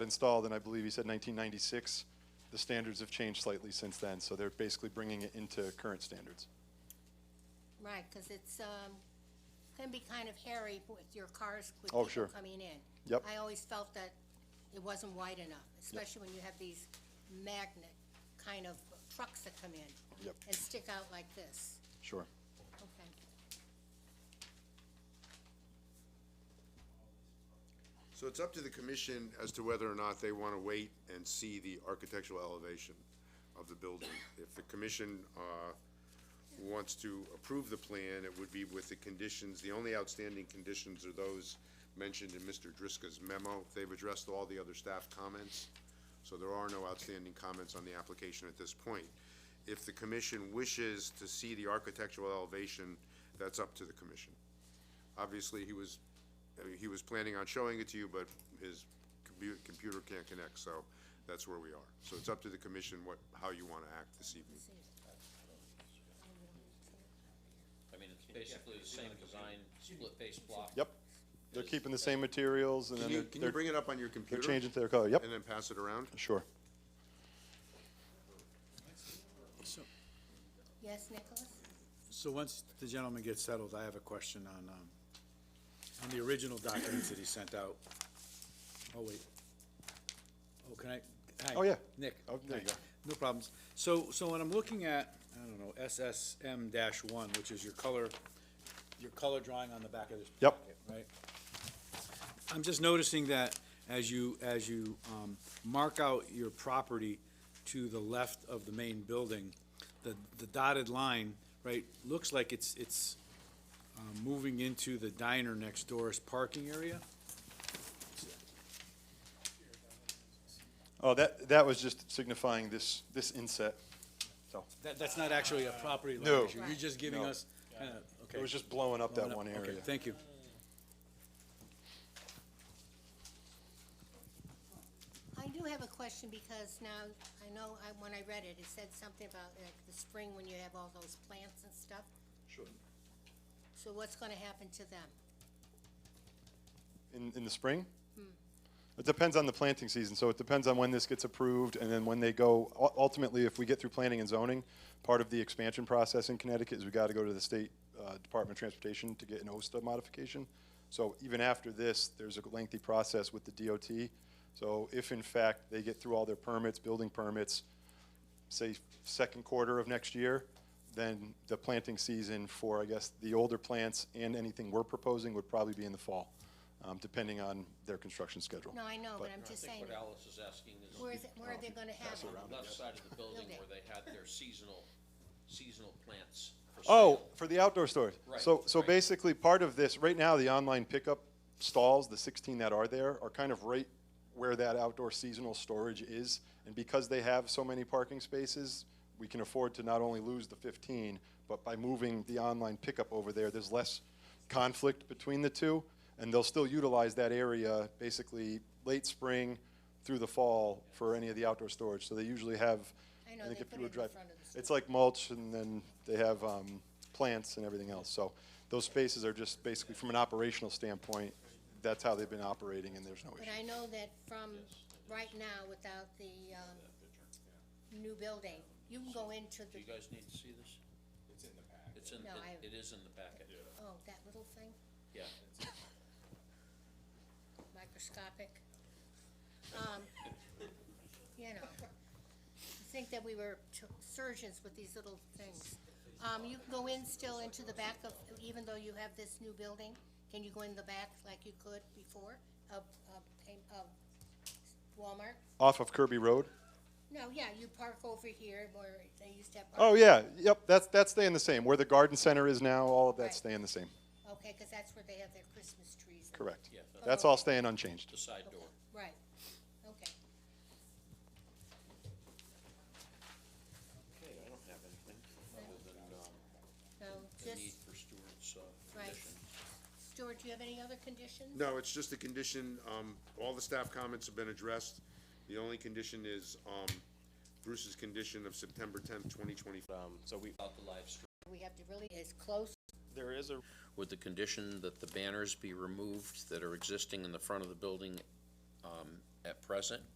installed in, I believe he said 1996. The standards have changed slightly since then, so they're basically bringing it into current standards. Right, because it's, um, can be kind of hairy with your cars, with Oh, people sure. coming in. Yep. I always felt that it wasn't wide enough, especially when you have these magnet kind of trucks that come in. Yep. And stick out like this. Sure. Okay. So it's up to the commission as to whether or not they want to wait and see the architectural elevation of the building. If the commission uh, wants to approve the plan, it would be with the conditions, the only outstanding conditions are those mentioned in Mr. Driscoll's memo. They've addressed all the other staff comments, so there are no outstanding comments on the application at this point. If the commission wishes to see the architectural elevation, that's up to the commission. Obviously, he was, I mean, he was planning on showing it to you, but his compu- computer can't connect, so that's where we are. So it's up to the commission what, how you want to act this evening. I mean, it's basically the same design, split face block. Yep. They're keeping the same materials and Can then you, they're, can you they're- bring it up on your they're computer? changing to their color. Yep, And then pass it around? sure. Yes, Nicholas? So once the gentleman gets settled, I have a question on, um, on the original documents that he sent out. Oh, wait. Oh, can I? hi, Oh, yeah. Nick. Oh, there you Hi. go. No problems. So, so when I'm looking at, I don't know, SSM one, which is your color, your color drawing on the back of this Yep. packet, right? I'm just noticing that as you, as you, um, mark out your property to the left of the main building, the, the dotted line, right, looks like it's, it's, uh, moving into the diner next door's parking area? Oh, that, that was just signifying this, this inset. So That, that's not actually a property line No. issue, you're just giving No. us, kinda, okay. it was just Oh, blowing up that one Okay, area. thank you. I do have a question because now, I know, I, when I read it, it said something about like the spring when you have all those plants and stuff. Sure. So what's gonna happen to them? In, in the spring? It depends on the planting season, so it depends on when this gets approved, and then when they go, u- ultimately, if we get through planning and zoning, part of the expansion process in Connecticut is we gotta go to the state, uh, Department of Transportation to get an OSTA modification. So even after this, there's a lengthy process with the DOT, so if in fact they get through all their permits, building permits, say, second quarter of next year, then the planting season for, I guess, the older plants and anything we're proposing would probably be in the fall, um, depending on their construction schedule. No, I know, But- but I'm just I saying, think what Alice is asking is where is, it- where are they gonna have them? on the left side of the building Building. where they had their seasonal, seasonal plants for sale. Oh, for the outdoor storage. Right, So, so right. basically, part of this, right now, the online pickup stalls, the 16 that are there, are kind of right where that outdoor seasonal storage is. And because they have so many parking spaces, we can afford to not only lose the 15, but by moving the online pickup over there, there's less conflict between the two. And they'll still utilize that area basically late spring through the fall for any of the outdoor storage. So they usually have, I know, I think they if put you were it in driving, front of the store. it's like mulch, and then they have um, plants and everything else. So those spaces are just basically, from an operational standpoint, that's how they've been operating, and there's no But issue. I know that from right now, without the, um, new building, you can go into Do the, you guys need to see this? It's in the No, I- packet. It's in, it- it is in the packet. oh, that little thing, Yeah, microscopic. Um, you know, you think that we were t- surgeons with these little things. Um, you can go in still into the back of, even though you have this new building, can you go in the back like you could before of, of, of Walmart? Off of Kirby Road? No, yeah, you park over here where they used to have. Oh, yeah, yep, that's, that's staying the same. Where the garden center is now, all of Right. that's staying the same, Okay, because that's where they have their Christmas trees. and- correct. Yeah. That's all staying unchanged. the side door. Right, okay. Okay, I don't have anything other than, um, So the need just, for Stewart's, uh, Right. condition. Stuart, do you have any other conditions? No, it's just a condition, um, all the staff comments have been addressed. The only condition is, um, Bruce's condition of September tenth, twenty twenty-five. Um, so we, About the live stream. We have to really, it's close, there is a, With the condition that the banners be removed that are existing in the front of the building, um, at present,